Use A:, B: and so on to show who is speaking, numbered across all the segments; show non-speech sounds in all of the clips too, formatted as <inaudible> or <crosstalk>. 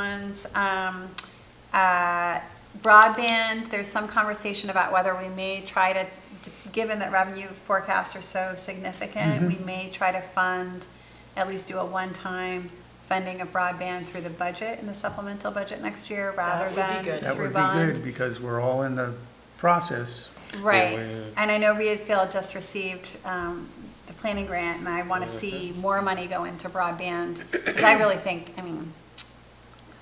A: bonds, um, uh, broadband, there's some conversation about whether we may try to, d- given that revenue forecasts are so
B: Mm-hmm.
A: significant, we may try to fund, at least do a one-time funding of broadband through the budget, in the supplemental budget next year, rather
C: would be
A: than
C: good.
A: through
B: That would
A: bond.
B: be good, because we're all in the process.
A: Right,
D: Yeah, we-
A: and I know Reedfield just received um, the planning grant, and I want to see more money go into broadband, because I really think, I mean,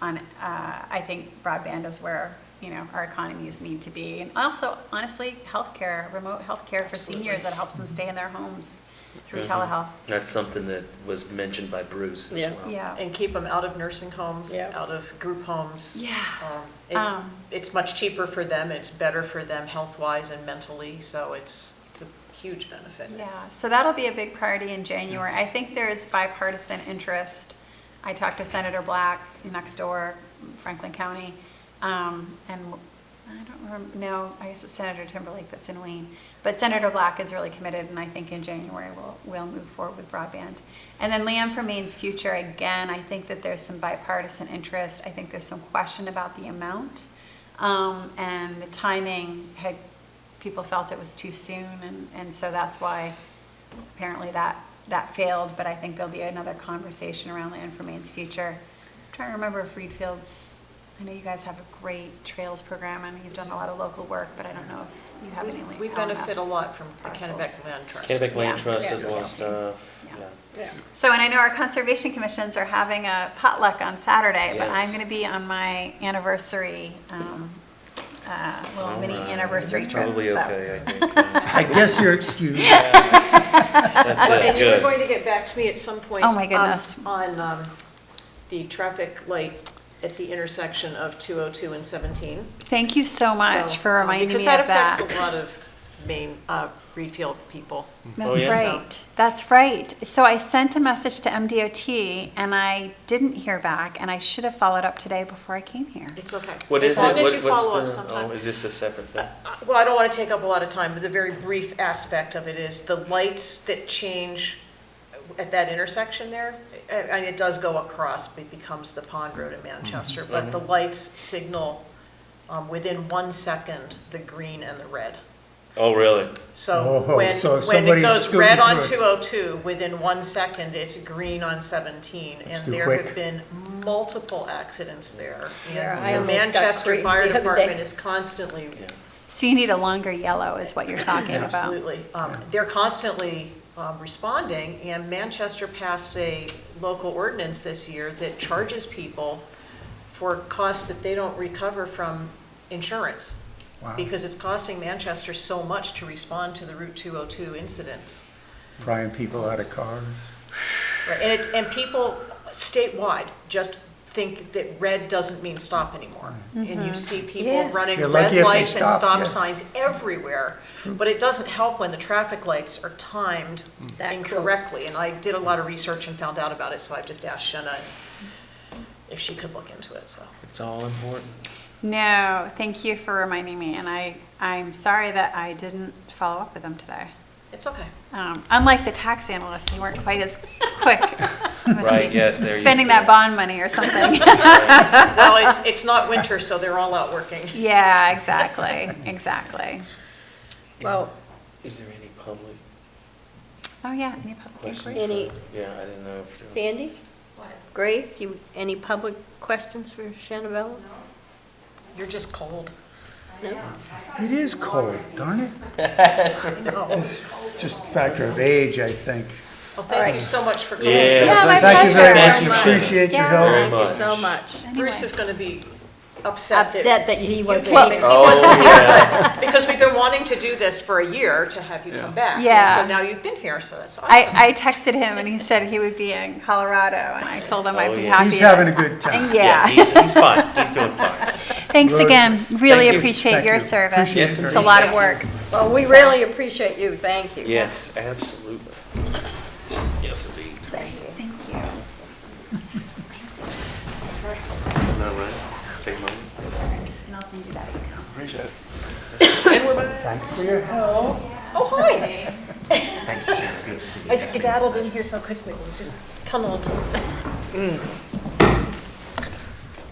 A: on, uh, I think broadband is where, you know, our economies need to be. And also, honestly, healthcare, remote healthcare for seniors that helps them stay in their homes through
D: Mhm.
A: telehealth.
D: That's something that was mentioned by Bruce as
C: Yeah.
D: well.
A: Yeah.
C: And keep them out of nursing homes,
E: Yeah.
C: out of group homes.
A: Yeah.
C: Um, It's,
A: Um.
C: it's much cheaper for them, it's better for them health-wise and mentally, so it's, it's a huge benefit.
A: Yeah, so that'll be a big priority in January. I think there is bipartisan interest. I talked to Senator Black next door, Franklin County, um, and I don't remember, no, I guess it's Senator Timberlake that's in Wayne. But Senator Black is really committed, and I think in January we'll, we'll move forward with broadband. And then Liam for Maine's future, again, I think that there's some bipartisan interest. I think there's some question about the amount. Um, and the timing had, people felt it was too soon, and, and so that's why apparently that, that failed, but I think there'll be another conversation around land for Maine's future. I'm trying to remember if Reed Fields, I know you guys have a great trails program, and you've done a lot of local work, but I don't know if you have any.
C: We- We benefit a lot from the
A: parcels.
C: Kennebec Land Trust.
D: Kennebec Land
A: Yeah.
D: Trust does a lot
C: Yeah.
D: of stuff,
A: Yeah.
D: yeah.
E: Yeah.
A: So, and I know our conservation commissions are having a potluck on Saturday, but I'm
D: Yes.
A: gonna be on my anniversary, um, uh, little mini
D: Alright,
A: anniversary
D: that's
A: trip,
D: Probably
A: so.
D: okay, I think. yeah.
B: I guess you're excused.
D: That's it,
C: And you were
D: good.
C: going to get back to me at some point.
A: Oh, my
C: um,
A: goodness.
C: On um, the traffic light at the intersection of 202 and 17.
A: Thank you so much
C: So,
A: for
C: um,
A: reminding me of
C: Because that affects a lot of Maine, uh, Reedfield people.
D: Oh,
A: That's
D: yeah.
A: right. That's right. So I sent a message to MDOT and I didn't hear back and I should have followed up today before I came here.
C: It's okay.
D: What
C: As
D: is it?
C: long as
D: What-
C: you
D: what's
C: follow
D: the-
C: up sometime.
D: Oh, is this a separate thing?
C: Uh, Well, I don't want to take up a lot of time, but the very brief aspect of it is the lights that change at that intersection there, and and it does go across, it becomes the Pond Road in
B: Mm-hmm.
C: Manchester, but the lights signal um, within one second, the green and the red.
D: Oh, really?
C: So
B: Oh,
C: when,
B: so if
C: when it
B: somebody's
C: goes red
B: scooting
C: on
B: through
C: 202, within one second, it's green on 17. And
B: That's too
C: there have
B: quick.
C: been multiple accidents there.
E: Yeah,
C: And
E: I
C: the
E: almost got
C: Manchester
E: creamed
C: Fire
E: the other day.
C: Department is constantly,
D: Yeah.
A: So you need a longer yellow is what you're talking about.
C: absolutely, um, they're constantly um, responding. And Manchester passed a local ordinance this year that charges people for costs that they don't recover from insurance.
B: Wow,
C: Because it's costing Manchester so much to respond to the Route 202 incidents.
B: prying people out of cars.
C: Right, and it's, and people statewide just think that red doesn't mean stop anymore. And you see people
E: Mm-hmm. Yes.
C: running
B: You're
C: red
B: lucky if they
C: lights and
B: stop,
C: stop
B: yeah.
C: signs everywhere. But it doesn't help when the traffic lights are timed
B: Mm.
E: That close.
C: incorrectly. And I did a lot of research and found out about it, so I've just asked Shenna if- if she could look into it, so.
D: It's all important.
A: No, thank you for reminding me and I, I'm sorry that I didn't follow up with them today.
C: It's okay.
A: Um, Unlike the tax analysts, they weren't quite as
D: <laughs>
A: quick. <laughs> They must
D: Right,
A: be
D: yes, they're used
A: Spending
D: to
A: that
D: that.
A: bond money or
D: <laughs>
A: something. <laughs>
C: Well,
E: <laughs>
C: it's, it's not winter, so they're all out working.
A: Yeah, exactly, exactly.
E: Well,
D: Is there any public
A: Oh, yeah, any public
D: questions?
A: inquiries?
E: Any-
D: Yeah, I didn't know if there
E: Sandy? Grace, you, any public questions for Shanabella?
C: You're just cold.
E: No?
B: It is cold, darn it.
D: <laughs>
C: No.
B: It's just a factor of age, I think.
C: Well, thank you so much for coming.
D: Yeah. Yeah, my
B: Thank you very much,
D: pleasure. Thank you.
B: appreciate your help.
D: Very
E: Thank you so
D: much.
E: much.
C: Bruce is going to be upset that
E: Upset that he wasn't
C: can't
E: here.
D: Oh, yeah.
C: Because we've been wanting to do this for a year to have you come back. and
A: Yeah.
C: So now you've been here, so that's awesome.
A: I, I texted him and he said he would be in Colorado and I told him I'd
D: Oh,
A: be
D: yeah.
A: happy.
B: He's having a
A: to-
B: good time.
D: Yeah,
A: Yeah,
D: he's, he's fine. He's doing fine.
A: thanks
B: Rose,
A: again. Really
D: thank you.
A: appreciate
B: Thank
A: your
B: you.
A: service.
B: Appreciate
A: It's
B: it.
A: a lot of work.
E: Well, we really appreciate you, thank you.
D: Yes, absolutely. Yes, indeed.
E: Thank you.
A: Thank you.
D: No, right? Take a moment.
A: And I'll send you that email.
D: Appreciate it.
B: Thanks for your help.
C: Oh, hi. I skedaddled in here so quickly, it was just tunneled.